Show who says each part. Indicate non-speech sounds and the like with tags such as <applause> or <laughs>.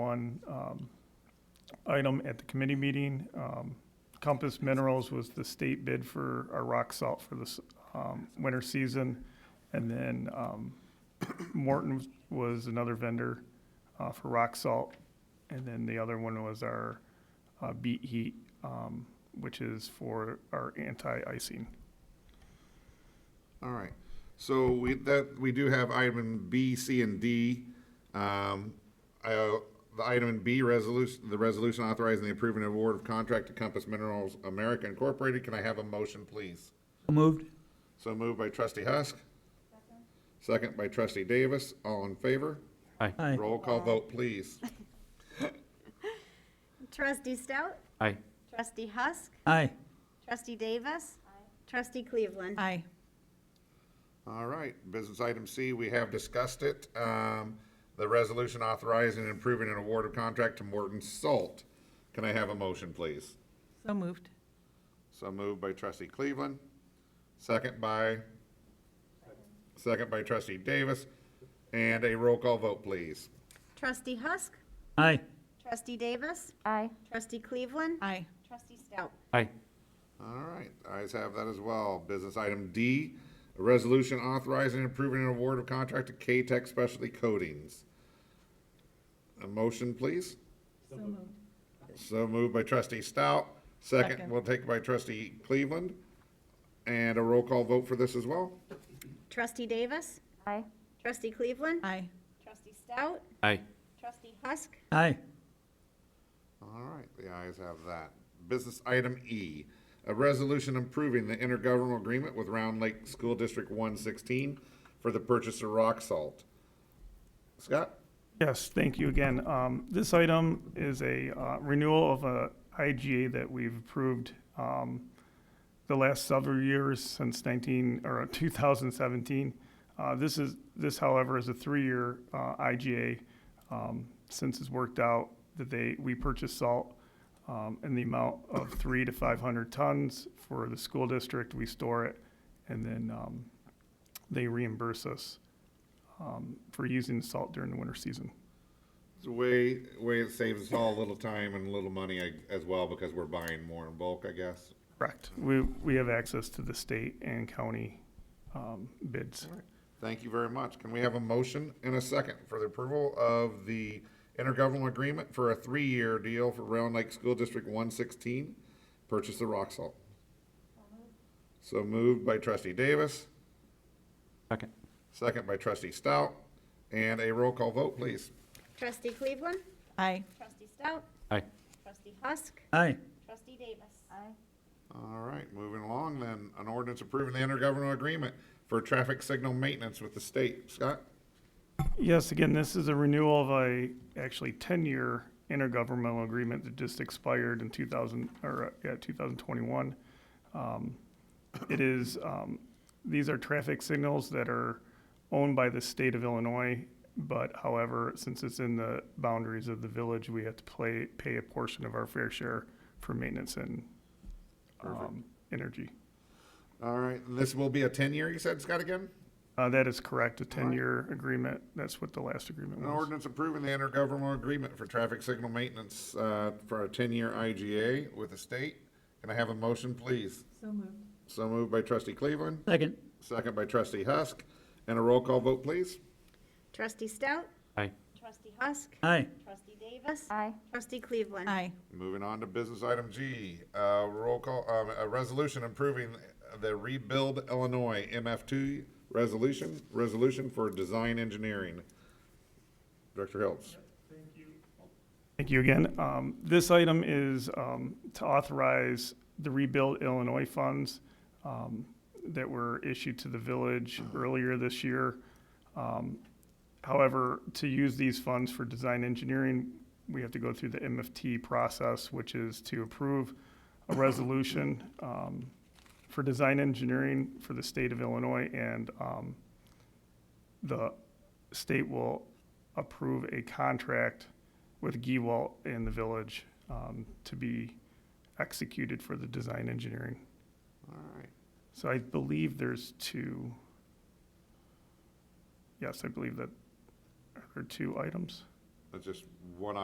Speaker 1: one um, item at the committee meeting. Um, Compass Minerals was the state bid for our rock salt for this um, winter season. And then um, Morton was another vendor uh, for rock salt. And then the other one was our uh, Beat Heat, um, which is for our anti-icing.
Speaker 2: All right, so we, that, we do have item B, C, and D. Um, uh, The item in B, resolution, the resolution authorizing the approving and award of contract to Compass Minerals America Incorporated. Can I have a motion, please?
Speaker 3: So moved.
Speaker 2: So moved by trustee Husk. Second by trustee Davis. All in favor?
Speaker 3: Aye.
Speaker 2: Roll call vote, please.
Speaker 4: Trustee Stout?
Speaker 5: Aye.
Speaker 4: Trustee Husk?
Speaker 3: Aye.
Speaker 4: Trustee Davis? Trustee Cleveland?
Speaker 6: Aye.
Speaker 2: All right, business item C, we have discussed it. Um, The resolution authorizing and approving an award of contract to Morton Salt. Can I have a motion, please?
Speaker 6: So moved.
Speaker 2: So moved by trustee Cleveland, second by, second by trustee Davis, and a roll call vote, please.
Speaker 4: Trustee Husk?
Speaker 3: Aye.
Speaker 4: Trustee Davis? Aye. Trustee Cleveland?
Speaker 6: Aye.
Speaker 4: Trustee Stout?
Speaker 5: Aye.
Speaker 2: All right, ayes have that as well. Business item D, a resolution authorizing and approving an award of contract to K-Tech Specialty Coatings. A motion, please?
Speaker 6: So moved.
Speaker 2: So moved by trustee Stout, second,
Speaker 6: Second.
Speaker 2: we'll take by trustee Cleveland, and a roll call vote for this as well?
Speaker 4: Trustee Davis? Aye. Trustee Cleveland?
Speaker 6: Aye.
Speaker 4: Trustee Stout?
Speaker 5: Aye.
Speaker 4: Trustee Husk?
Speaker 3: Aye.
Speaker 2: All right, the ayes have that. Business item E, a resolution improving the intergovernmental agreement with Round Lake School District one sixteen for the purchase of rock salt. Scott?
Speaker 1: Yes, thank you again. Um, This item is a uh, renewal of a IGA that we've approved um, the last several years since 19, or <laughs> 2017. Uh, This is, this however is a three-year uh, IGA. um, Since it's worked out that they, we purchase salt um, in the amount of three to 500 tons for the school district. We store it and then um, they reimburse us um, for using the salt during the winter season.
Speaker 2: It's a way, way it saves us all a little time and a little money I- as well, because we're buying more in bulk, I guess.
Speaker 1: Correct. We, we have access to the state and county um, bids.
Speaker 2: Thank you very much. Can we have a motion and a second for the approval of the intergovernmental agreement for a three-year deal for Round Lake School District one sixteen, purchase of rock salt? So moved by trustee Davis,
Speaker 5: Second.
Speaker 2: second by trustee Stout, and a roll call vote, please.
Speaker 4: Trustee Cleveland?
Speaker 6: Aye.
Speaker 4: Trustee Stout?
Speaker 5: Aye.
Speaker 4: Trustee Husk?
Speaker 3: Aye.
Speaker 4: Trustee Davis? Aye.
Speaker 2: All right, moving along then, an ordinance approving the intergovernmental agreement for traffic signal maintenance with the state. Scott?
Speaker 1: Yes, again, this is a renewal of a, actually 10-year intergovernmental agreement that just expired in 2000, or, uh, yeah, 2021. Um, It is, um, these are traffic signals that are owned by the state of Illinois, but however, since it's in the boundaries of the village, we have to play, pay a portion of our fair share for maintenance and um, energy.
Speaker 2: All right, and this will be a ten-year, you said, Scott, again?
Speaker 1: Uh, That is correct, a 10-year agreement. That's what the last agreement
Speaker 2: An
Speaker 1: was.
Speaker 2: ordinance approving the intergovernmental agreement for traffic signal maintenance uh, for a 10-year IGA with the state. Can I have a motion, please?
Speaker 6: So moved.
Speaker 2: So moved by trustee Cleveland,
Speaker 3: Second.
Speaker 2: second by trustee Husk, and a roll call vote, please.
Speaker 4: Trustee Stout?
Speaker 5: Aye.
Speaker 4: Trustee Husk?
Speaker 3: Aye.
Speaker 4: Trustee Davis? Aye. Trustee Cleveland?
Speaker 6: Aye.
Speaker 2: Moving on to business item G, uh, roll call, um, a resolution improving the Rebuild Illinois MF2 resolution, resolution for design engineering. Director Hiltz.
Speaker 1: Thank you again. Um, This item is um, to authorize the Rebuild Illinois funds um, that were issued to the village earlier this year. Um, However, to use these funds for design engineering, we have to go through the MFT process, which is to approve a resolution um, for design engineering for the state of Illinois, and um, the state will approve a contract with Gewalt in the village um, to be executed for the design engineering.
Speaker 2: All right.
Speaker 1: So I believe there's two. Yes, I believe that there are two items.
Speaker 2: That's just one